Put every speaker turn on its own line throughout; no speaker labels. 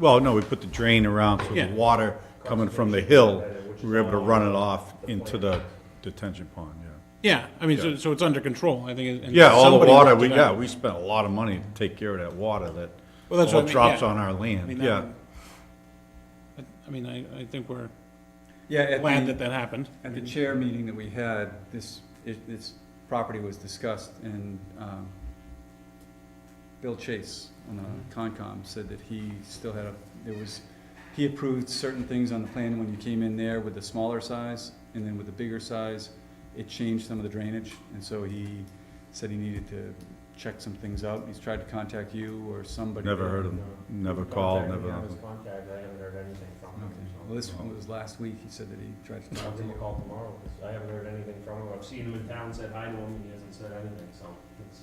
Well, no, we put the drain around, so the
Yeah.
water coming from the hill, we were able to run it off into the detention pond, yeah.
Yeah, I mean, so, so it's under control, I think. and
Yeah, all the
somebody
water,
worked
we,
it
yeah,
out.
we spent a lot of money to take care of that water that
Well, that's what I
all
mean,
drops
yeah.
on our
I mean,
land,
that
yeah.
one- I I mean, I, I think we're
Yeah, at
glad that
the,
that happened.
at the chair meeting that we had, this, it- this property was discussed and, um, Bill Chase on the
Mm-hmm.
Concom said that he still had a, there was, he approved certain things on the plan when you came in there with the smaller size and then with the bigger size, it changed some of the drainage, and so he said he needed to check some things out. He's tried to contact you or somebody.
Never heard of him, never called,
Contact,
never,
yeah, his contact, I haven't heard anything from
Okay,
him,
well,
so.
this one was last week, he said that he tried to
I'll
talk to
give him a
you.
call tomorrow, 'cause I haven't heard anything from him, I've seen him in town, said hi to him, and he hasn't said anything, so. it's-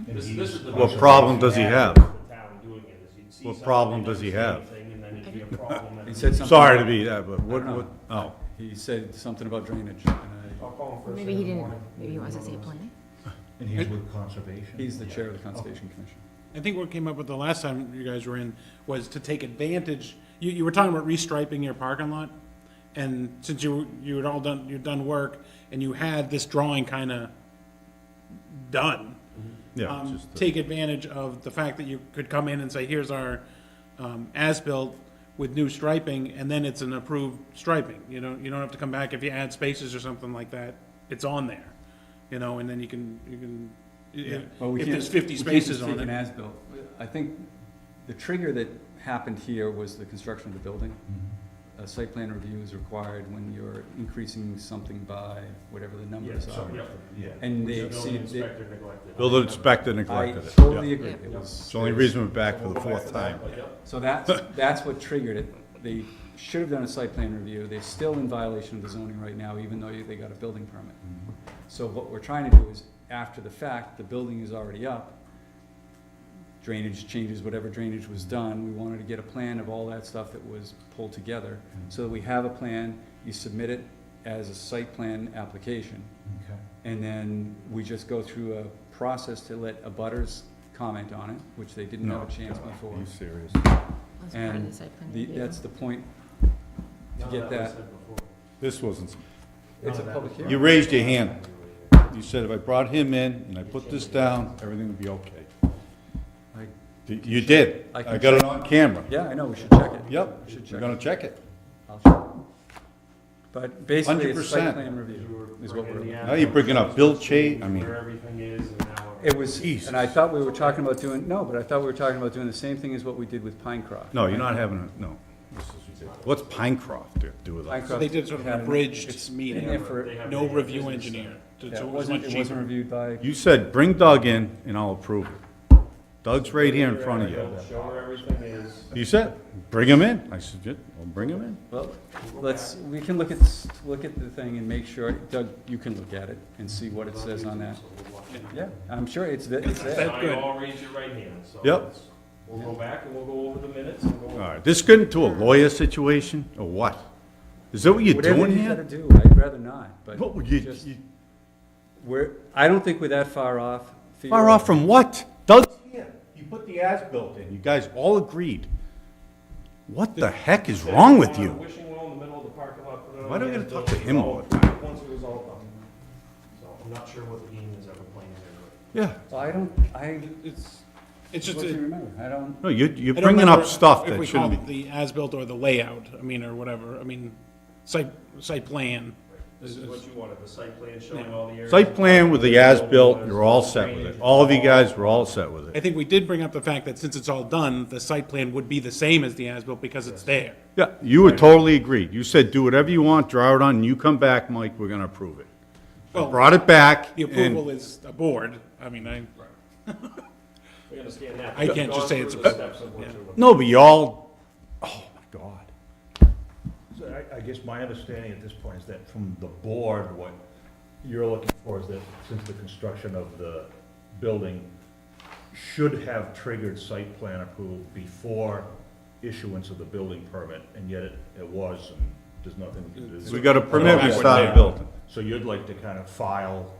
Okay.
this- this is the-
What problem does he have?
The town doing it, is you'd see
What
something,
problem
you'd
does he
say
have?
anything, and then it'd be a problem, and-
He said something.
sorry to be that, but what,
I don't
what, oh,
know. He said something about drainage, and I,
I'll call him first
Maybe
thing
he
in the
didn't,
morning.
maybe he wants to see a plan.
And he's with conservation?
he's the chair of the Conservation Commission.
I think what came up with the last time you guys were in was to take advantage, you, you were talking about restriping your parking lot. And since you, you had all done, you'd done work and you had this drawing kinda done.
yeah.
um,
just the-
take advantage of the fact that you could come in and say, here's our um, as-built with new striping, and then it's an approved striping. You know, you don't have to come back if you add spaces or something like that. It's on there, you know, and then you can, you can,
Well, we
if if
can't-
there's 50
we can't just
spaces on
take an
it.
as-built. I think the trigger that happened here was the construction of the building. A site plan review is required when you're increasing something by whatever the
Yeah,
numbers
so,
are.
yeah.
Yeah.
And they
The building
exceeded, they-
inspector neglected.
Building inspector
I
neglected it,
totally
yeah.
agree, it
Yeah.
was.
It's the only reason we're back for the fourth time.
So that's, that's what triggered it. They should have done a site plan review. They're still in violation of the zoning right now, even though they got a building permit.
Mm-hmm.
So what we're trying to do is, after the fact, the building is already up. Drainage changes, whatever drainage was done, we wanted to get a plan of all that stuff that was pulled together.
Mm-hmm.
So that we have a plan, you submit it as a site plan application.
Okay.
And then we just go through a process to let abutters comment on it, which they didn't have
No.
a chance before.
Are you serious?
That's part of
And
the site plan
the,
review.
that's the point,
No,
To get
that was
that-
said before.
This wasn't,
it's a
No, that
public
was-
hearing.
you raised your hand. You said if I brought him in and I put this down, everything would be okay.
I-
You- You did.
I can
I got it on camera.
yeah, I know, we should check it.
Yep,
We should
we're
check it.
gonna check it.
I'll check. But basically, it's site
100%.
plan
You
review
were
is what
bringing the
we're,
Now you're bringing up Bill Cha, I mean.
Where everything is, and now.
it was,
Jesus.
and I thought we were talking about doing, no, but I thought we were talking about doing the same thing as what we did with Pinecroft.
No, you're not having a, no. This is ridiculous. What's Pinecroft to do with us?
So they did sort of an
Pinecroft had-
abridged
it's
meeting,
in there for-
They have
no
the
review
uh,
business
engineer. So
Yeah,
it
it
was
wasn't,
much
it wasn't
cheaper.
reviewed by,
You said, bring Doug in and I'll approve it. Doug's right here in front of you.
Show where everything is.
You said, bring him in. I said, yeah, I'll bring him in.
well, let's, we can look at, s- look at the thing and make sure, Doug, you can look at it and see what it says on that. Yeah, I'm sure it's, th- it's there.
That's good.
I all raise your right hand, so.
Yep.
it's- We'll go back and we'll go over the minutes and go.
All right, this get into a lawyer situation or what? Is that what you're
Whatever
doing
you gotta
here?
do, I'd rather not, but
What, you,
just,
you,
we're, I don't think we're that far off. Theo.
far off from what? Doug's here. You put the as-built in. You guys all agreed. What the heck is wrong with
On the
you?
Wishing well in the middle of the parking lot. put it on
Why do we
the
gotta talk to
end,
him
it's
all
all-
the
Once it was all done. So I'm not sure what the game is ever playing there.
Yeah,
Well, I don't, I,
It's, it's
what
just,
do you
a-
remember? I don't,
no, you, you're
I don't
bringing
remember
up stuff
if
that
we
shouldn't be.
called it The as-built or the layout, I mean, or whatever, I mean, site, site plan.
This is what you wanted, the site plan showing all the areas.
Site plan with the as-built, you're all set with it. All of you guys were all set with
I
it.
think we did bring up the fact that since it's all done, the site plan would be the same as the as-built because it's there.
Yeah, you were totally agreed. You said, do whatever you want, draw it on, and you come back, Mike, we're gonna approve it. I
Well,
Brought it back,
The
and
approval is a board, I mean, I,
We understand that.
I
We've
can't just
gone
say it's
through
a-
the steps of what you're looking
no, but y'all, oh my God.
So I, I guess my understanding at this point is that from the board, what you're looking for is that since the construction of the building should have triggered site plan approval before issuance of the building permit, and yet it, it was, and there's nothing we can do. Uh,
We got a permit, uh, we started building.
So you'd like to kind of file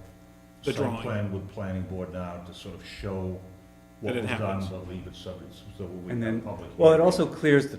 The
site
drawing.
plan with planning board now to sort of show what
That it
was done,
happens.
but leave it subject, so we
and
have
then,
public.
well, it
hearing.
also clears the